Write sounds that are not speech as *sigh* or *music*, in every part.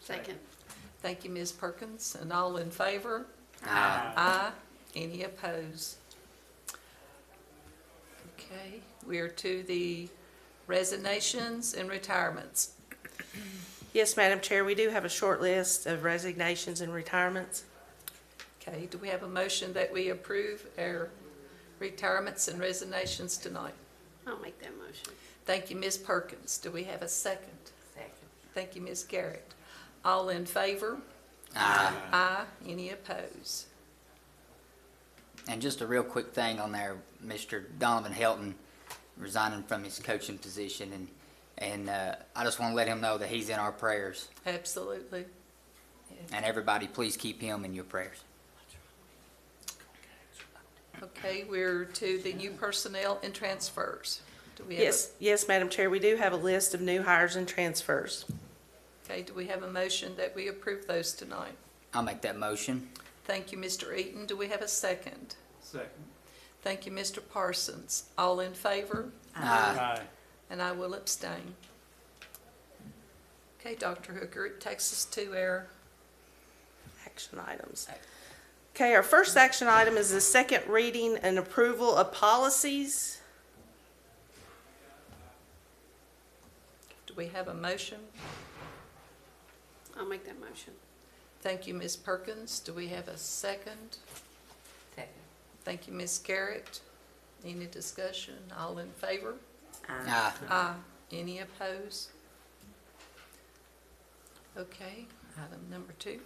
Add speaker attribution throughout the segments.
Speaker 1: Second.
Speaker 2: Thank you, Ms. Perkins, and all in favor?
Speaker 1: Aye.
Speaker 2: Aye. Any opposed? Okay, we are to the resignations and retirements.
Speaker 3: Yes, Madam Chair, we do have a short list of resignations and retirements.
Speaker 2: Okay, do we have a motion that we approve our retirements and resignations tonight?
Speaker 1: I'll make that motion.
Speaker 2: Thank you, Ms. Perkins. Do we have a second?
Speaker 1: Second.
Speaker 2: Thank you, Ms. Garrett. All in favor?
Speaker 4: Uh,
Speaker 2: Aye. Any opposed?
Speaker 4: And just a real quick thing on there, Mr. Donovan Helton resigning from his coaching position, and and uh, I just want to let him know that he's in our prayers,
Speaker 2: Absolutely.
Speaker 4: and everybody, please keep him in your prayers.
Speaker 2: Okay, we're to the new personnel and transfers. Do we have a-
Speaker 3: Yes, yes, Madam Chair, we do have a list of new hires and transfers.
Speaker 2: Okay, do we have a motion that we approve those tonight?
Speaker 4: I'll make that motion.
Speaker 2: Thank you, Mr. Eaton. Do we have a second?
Speaker 5: Second.
Speaker 2: Thank you, Mr. Parsons. All in favor?
Speaker 4: Aye.
Speaker 5: Aye.
Speaker 2: And I will abstain. Okay, Dr. Hooker, it takes us to our,
Speaker 3: Action items. Okay, our first action item is the second reading and approval of policies.
Speaker 2: do we have a motion?
Speaker 1: I'll make that motion.
Speaker 2: Thank you, Ms. Perkins. Do we have a second?
Speaker 1: Second.
Speaker 2: Thank you, Ms. Garrett. Any discussion? All in favor?
Speaker 4: Aye.
Speaker 2: Aye. Uh, Any opposed? Okay, item number two.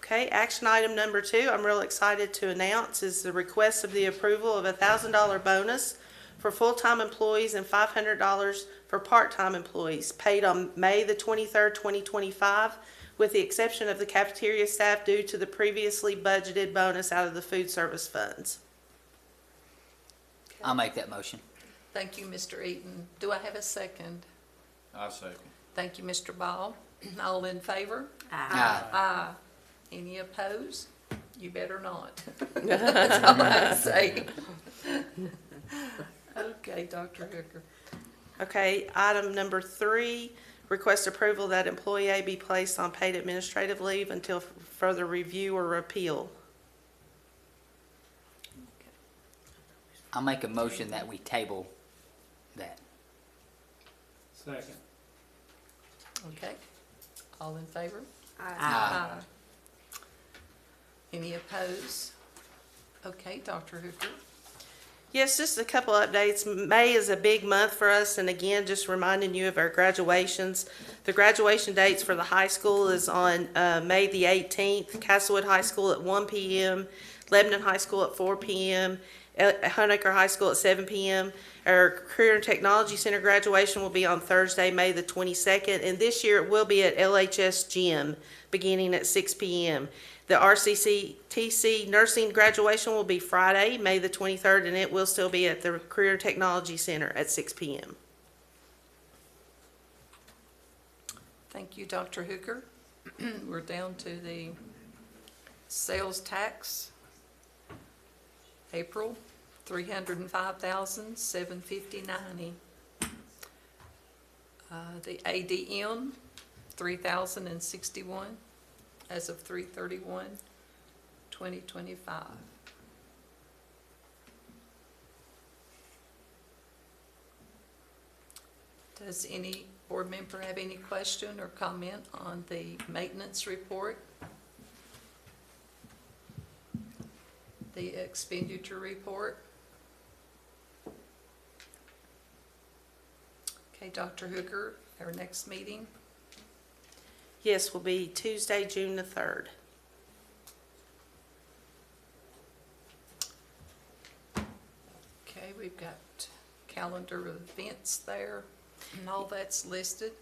Speaker 3: Okay, action item number two, I'm real excited to announce, is the request of the approval of a thousand dollar bonus for full-time employees and five hundred dollars for part-time employees paid on May the twenty-third, twenty twenty-five, with the exception of the cafeteria staff due to the previously budgeted bonus out of the food service funds.
Speaker 4: I'll make that motion.
Speaker 2: Thank you, Mr. Eaton. Do I have a second?
Speaker 6: I second.
Speaker 2: Thank you, Mr. Ball. *clears throat* All in favor?
Speaker 4: Aye.
Speaker 2: Aye. Any opposed? You better not. *laughs* That's all
Speaker 4: Uh,
Speaker 2: I say. *laughs* Okay, Dr. Hooker.
Speaker 3: Okay, item number three, request approval that employee A be placed on paid administrative leave until further review or appeal.
Speaker 4: I'll make a motion that we table that.
Speaker 5: Second.
Speaker 2: Okay. All in favor?
Speaker 4: Aye.
Speaker 2: Aye. Any opposed? Okay, Dr. Hooker.
Speaker 3: Yes, just a couple updates. May is a big month for us, and again, just reminding you of our graduations. The graduation dates for the high school is on uh, May the 18th, Castlewood High School at 1 p.m., Lebanon High School at 4 p.m., uh, Hunnaker High School at 7 p.m. Our Career and Technology Center graduation will be on Thursday, May the 22nd, and this year it will be at LHS Gym, beginning at 6 p.m. The RCCTC nursing graduation will be Friday, May the 23rd, and it will still be at the Career Technology Center at 6 p.m.
Speaker 2: Thank you, Dr. Hooker. *clears throat* We're down to the sales tax. April, three hundred and five thousand, seven fifty ninety. Uh, the ADM, three thousand and sixty-one, as of three thirty-one, twenty twenty-five. Does any board member have any question or comment on the maintenance report? The expenditure report? Okay, Dr. Hooker, our next meeting,
Speaker 3: Yes, will be Tuesday, June the 3rd.
Speaker 2: okay, we've got calendar of events there, and all that's listed.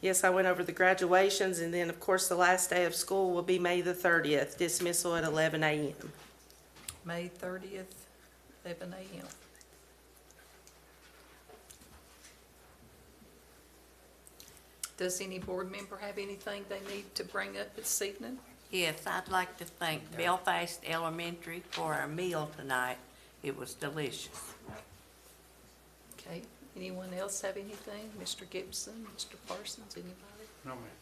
Speaker 3: Yes, I went over the graduations, and then, of course, the last day of school will be May the 30th, dismissal at 11 a.m.
Speaker 2: May thirtieth, eleven AM. Does any board member have anything they need to bring up this evening?
Speaker 7: Yes, I'd like to thank Belfast Elementary for our meal tonight. It was delicious.
Speaker 2: Okay, anyone else have anything? Mr. Gibson, Mr. Parsons, anybody?
Speaker 5: No, ma'am.